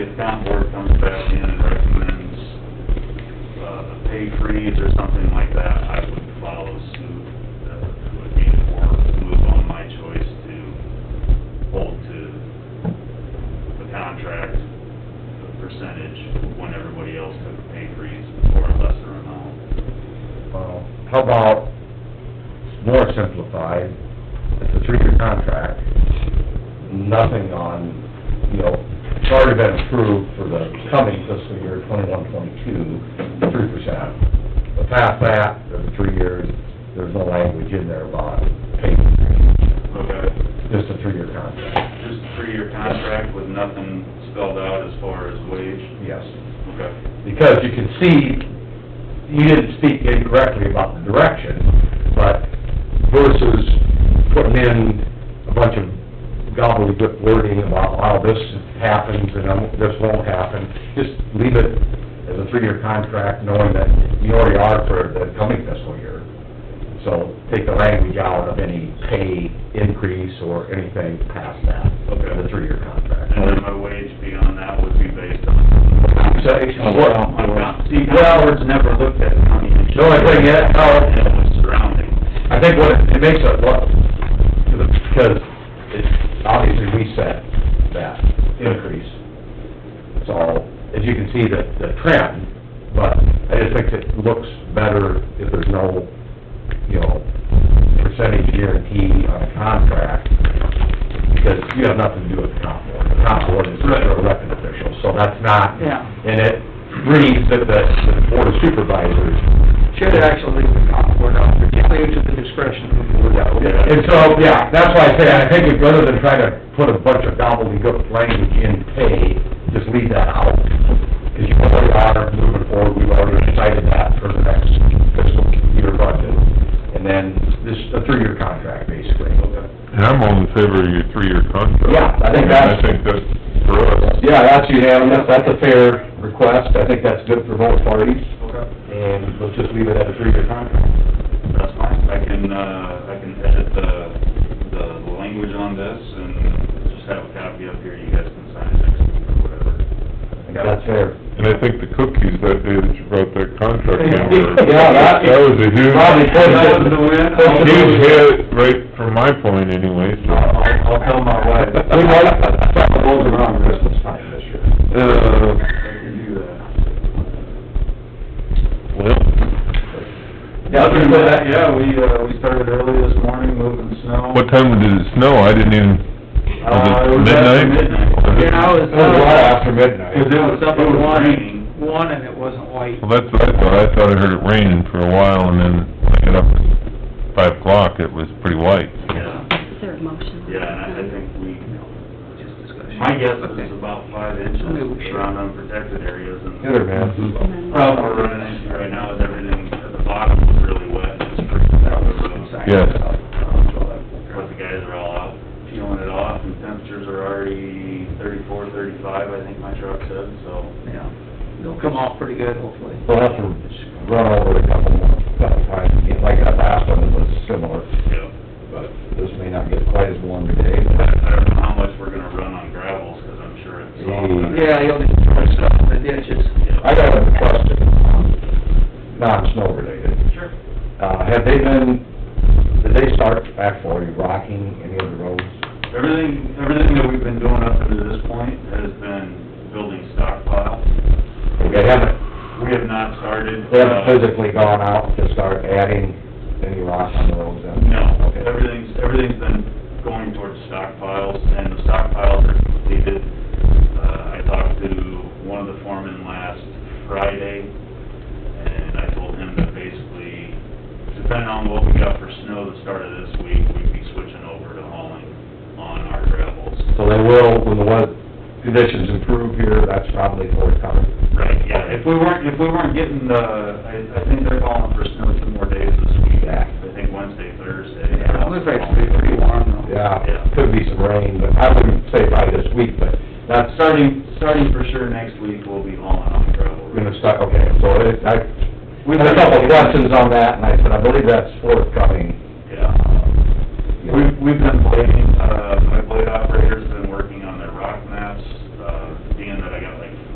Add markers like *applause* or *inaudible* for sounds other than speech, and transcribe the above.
If town board comes back in and recommends, uh, a pay freeze or something like that, I would follow suit. Uh, it Would be or move on my choice to hold to the contract percentage when everybody else took a pay freeze for a lesser amount. Well, how about more simplified, it's a three-year contract, nothing on, you know, it's already been approved for the coming fiscal year twenty-one, twenty-two, three percent. But past that, there's three years, there's no language in there about pay, Okay. just a three-year contract, Just a three-year contract with nothing spelled out as far as wage? yes. Okay. because you can see, you didn't speak incorrectly about the direction, but versus putting in a bunch of gobbledygook wording about, wow, this happens and um, this won't happen, just leave it as a three-year contract, knowing that you already are for the coming fiscal year. So take the language out of any pay increase or anything past that, Okay. the three-year contract. And then my wage beyond that would be based on, So, what- my comp, see, Howard's never looked at county insurance. The only thing is, how- And what's surrounding. I think what, it makes it look, because it, obviously we set that increase. So, as you can see, the, the trend, but I just think it looks better if there's no, you know, percentage guarantee on a contract, because you have nothing to do with the comp board. The comp board is just a elected official, so that's not, Yeah. and it reads that the, the board of supervisors Should actually leave the comp board out, particularly to the discretion of the board. And so, yeah, that's why I say, I think it's rather than try to put a bunch of gobbledygook language in pay, just leave that out. Because you already are moving forward, we've already decided that for the next fiscal year budget. And then this, a three-year contract, basically. And I'm all in favor of your three-year contract. Yeah, I think mean, that's- I think that's for us. Yeah, that's unanimous, that's a fair request, I think that's good for both parties. Okay. And let's just leave it at a three-year contract. That's fine, I can, uh, I can edit the, the language on this and just have a copy up here, you guys can sign it next week or whatever. I think that's fair. And I think the cookies that day that you brought that contract in were... *laughs* Yeah, that- That was a huge... Probably close That to- was the win. close to- Huge hit, right from my point anyway, so... I'll, I'll tell my wife. We like, some of those around Christmas time this year. Uh, I can do that. well, Yeah, Other than that, yeah, we, uh, we started early this morning moving snow. what time did it snow? I didn't even... Uh, it was was it after midnight. You know, midnight? It was a lot Cause after it midnight. was up It in was one, raining. One, and it wasn't white. Well, that's what I thought. I thought I heard it raining for a while, and then when I got up at five o'clock, it was pretty white. yeah, Is there a motion? yeah, and I I think we, Just discussion. My guess Okay. is about five inches around unprotected areas and. Mm-hmm. Good, man. Problem we're running into right now is everything at the bottom was really wet, it's freezing out the road. Yes. But Uh, the guys are all out peeling it off and temperatures are already thirty-four, thirty-five, I think my truck said, so. Yeah, it'll come off pretty good, hopefully. We'll have to run over it a couple more, couple times, again. like that last one was similar, Yeah. but this may not get quite as warm today, I but I don't know how much we're gonna run on gravels, cause I'm sure it's all. Yeah, you'll need to throw stuff in the ditches. I got a question, um, non-snow related. Sure. Uh, have they been, did they start actually rocking any of the roads? Everything, everything that we've been doing up to this point has been building stockpile. They haven't We have not started. They uh, haven't physically gone out to start adding any rock on the roads then? No, Okay. everything's, everything's been going towards stockpiles, and the stockpiles are completed. Uh, I talked to one of the foremen last Friday, and I told him that basically, depending on what we got for snow the start of this week, we'd be switching over to hauling on our gravels. So they will, when the weather conditions improve here, that's probably forthcoming. Right, yeah, if we weren't, if we weren't getting the, I, I think they're calling for snow two more days this week. Yeah. I think Wednesday, Thursday. Yeah, it looks like it's pretty, pretty warm though. Yeah, could be some rain, but I wouldn't say by this week, but Now, that's Uh, starting, starting for sure next week, we'll be hauling on gravel. gonna start, okay, so it, I, We we had a couple of questions on that, and I said, I believe that's forthcoming. Yeah. We've, we've been blading, uh, my blade operator's been uh,